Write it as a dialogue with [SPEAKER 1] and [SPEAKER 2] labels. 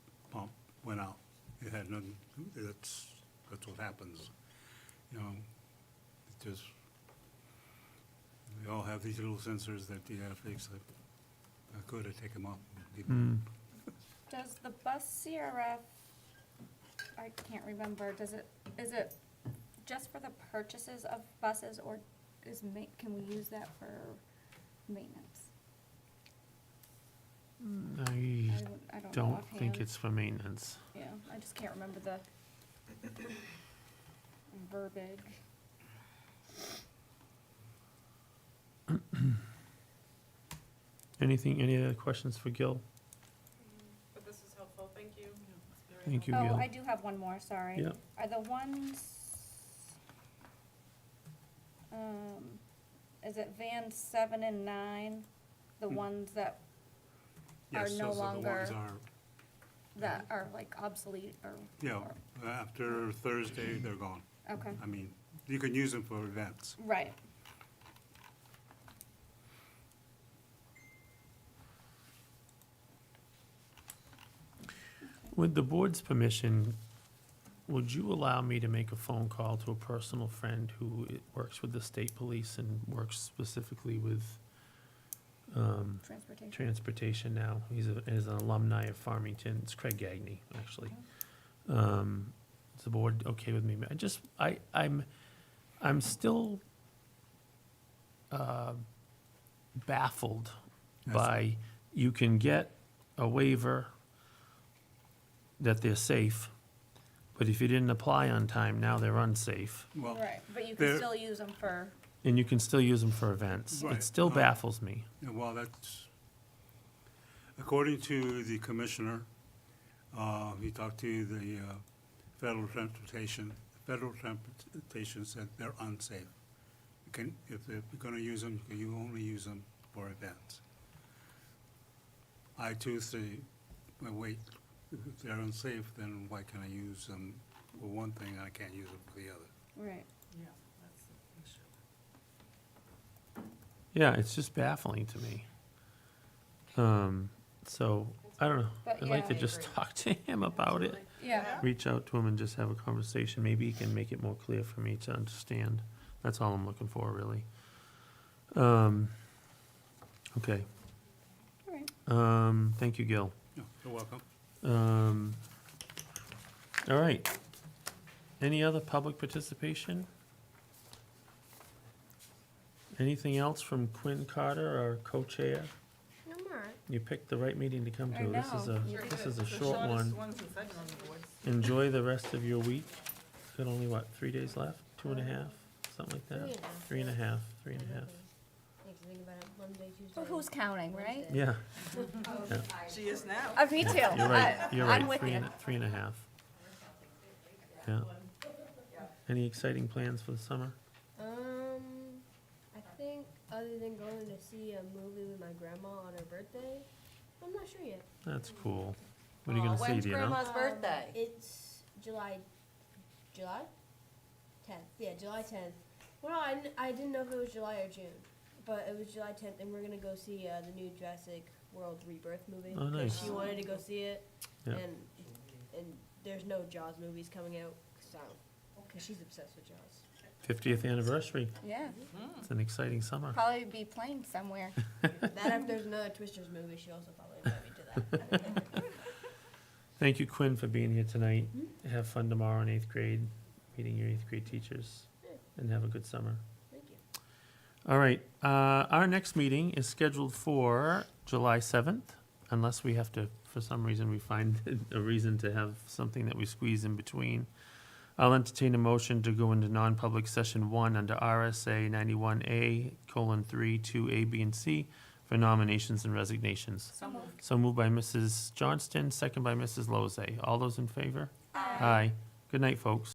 [SPEAKER 1] went out. It had nothing, that's, that's what happens, you know? It just, we all have these little sensors that you gotta fix. I- I could have taken them off.
[SPEAKER 2] Mm.
[SPEAKER 3] Does the bus CRF, I can't remember, does it, is it just for the purchases of buses or is ma- can we use that for maintenance? I
[SPEAKER 2] I
[SPEAKER 3] don't- I don't know
[SPEAKER 2] Mm. don't think
[SPEAKER 3] offhand.
[SPEAKER 2] it's for maintenance.
[SPEAKER 3] Yeah, I just can't remember the verbiage.
[SPEAKER 2] Anything, any other questions for Gil?
[SPEAKER 4] But this is helpful, thank you. It's very
[SPEAKER 2] Thank you,
[SPEAKER 3] Oh,
[SPEAKER 2] Gil.
[SPEAKER 3] I do have one more, sorry.
[SPEAKER 2] Yeah.
[SPEAKER 3] Are the ones, um, is it van seven and nine, the
[SPEAKER 1] Hmm.
[SPEAKER 3] ones that Are
[SPEAKER 1] Yes,
[SPEAKER 3] no
[SPEAKER 1] those are the ones
[SPEAKER 3] longer-
[SPEAKER 1] are,
[SPEAKER 3] that are like obsolete or?
[SPEAKER 1] yeah,
[SPEAKER 3] or-
[SPEAKER 1] after Thursday, they're gone.
[SPEAKER 3] Okay,
[SPEAKER 1] I mean, you can use them for events.
[SPEAKER 3] right.
[SPEAKER 2] With the board's permission, would you allow me to make a phone call to a personal friend who i- works with the state police and works specifically with um,
[SPEAKER 3] Transportation.
[SPEAKER 2] transportation now? He's a, is an alumni of Farmington. It's Craig Gagney, actually. Um, is the board okay with me? I just, I, I'm, I'm still, uh, baffled
[SPEAKER 1] Yes.
[SPEAKER 2] by, you can get a waiver that they're safe, but if you didn't apply on time, now they're unsafe,
[SPEAKER 1] Well,
[SPEAKER 3] Right, but you can
[SPEAKER 1] There-
[SPEAKER 3] still use them for,
[SPEAKER 2] and you can still use them for events.
[SPEAKER 1] Right.
[SPEAKER 2] It still
[SPEAKER 1] Uh,
[SPEAKER 2] baffles me.
[SPEAKER 1] Yeah, Well, that's, according to the commissioner, uh, he talked to the uh, federal transportation, federal transportation said they're unsafe. You can, if they're gonna use them, you only use them for events. I too say, well, wait, if they're unsafe, then why can I use them for one thing and I can't use them for the other?
[SPEAKER 3] right,
[SPEAKER 4] Yeah, that's the issue.
[SPEAKER 2] Yeah, it's just baffling to me. Um, so, I don't know,
[SPEAKER 3] But
[SPEAKER 2] I'd like to
[SPEAKER 3] yeah.
[SPEAKER 2] just talk to him about it.
[SPEAKER 3] yeah.
[SPEAKER 2] Reach out to him and just have a conversation, maybe he can make it more clear for me to understand. That's all I'm looking for, really. Um, okay,
[SPEAKER 3] All right.
[SPEAKER 2] um, thank you, Gil.
[SPEAKER 1] No, You're welcome.
[SPEAKER 2] Um, all right. Any other public participation? Anything else from Quinn Carter, our co-chair?
[SPEAKER 5] No more.
[SPEAKER 2] You picked the right meeting to come
[SPEAKER 3] I
[SPEAKER 2] to. This is
[SPEAKER 3] know.
[SPEAKER 2] a,
[SPEAKER 3] You
[SPEAKER 4] Sure
[SPEAKER 2] this
[SPEAKER 4] did.
[SPEAKER 2] is a
[SPEAKER 4] The
[SPEAKER 2] short
[SPEAKER 4] shortest
[SPEAKER 2] one.
[SPEAKER 4] one since I've been on the board.
[SPEAKER 2] Enjoy the rest of your week. Got only, what, three days left? Two and a half? Something like that? Three and a half, three and a half.
[SPEAKER 5] Need to think about it Monday, Tuesday.
[SPEAKER 3] But who's counting, right?
[SPEAKER 5] Wednesday.
[SPEAKER 2] Yeah,
[SPEAKER 4] She is now.
[SPEAKER 3] Uh, me too.
[SPEAKER 2] you're right,
[SPEAKER 3] I-
[SPEAKER 2] you're
[SPEAKER 3] I'm
[SPEAKER 2] right.
[SPEAKER 3] with
[SPEAKER 2] Three
[SPEAKER 3] you.
[SPEAKER 2] and, a- three and a half. Yeah. Any exciting plans for the summer?
[SPEAKER 5] Um, I think other than going to see a movie with my grandma on her birthday, I'm not sure yet.
[SPEAKER 2] That's cool. What are you gonna see, do you know?
[SPEAKER 5] Um, It's July, July, tenth. Yeah, July tenth. Well, I, kn- I didn't know if it was July or June, but it was July tenth, and we're gonna go see uh, the new Jurassic World Rebirth movie.
[SPEAKER 2] Oh,
[SPEAKER 5] 'cause
[SPEAKER 2] nice.
[SPEAKER 5] She wanted to go see it,
[SPEAKER 2] Yeah.
[SPEAKER 5] and and there's no Jaws movies coming out, so because she's obsessed with Jaws.
[SPEAKER 2] Fiftieth anniversary.
[SPEAKER 3] Yeah,
[SPEAKER 2] It's an exciting summer.
[SPEAKER 3] probably be playing somewhere.
[SPEAKER 5] That if there's another Twisters movie, she also probably invite me to that.
[SPEAKER 2] Thank you, Quinn, for being here tonight. Have fun tomorrow in eighth grade, meeting your eighth grade teachers, and have a good summer.
[SPEAKER 5] Thank you.
[SPEAKER 2] All right, uh, our next meeting is scheduled for July seventh, unless we have to, for some reason, we find a reason to have something that we squeeze in between. I'll entertain a motion to go into non-public session one under RSA ninety-one A colon three, two A, B, and C for nominations and resignations.
[SPEAKER 4] So moved.
[SPEAKER 2] So moved by Mrs. Johnston, second by Mrs. Lozay. All those in favor? Aye. Good night, folks.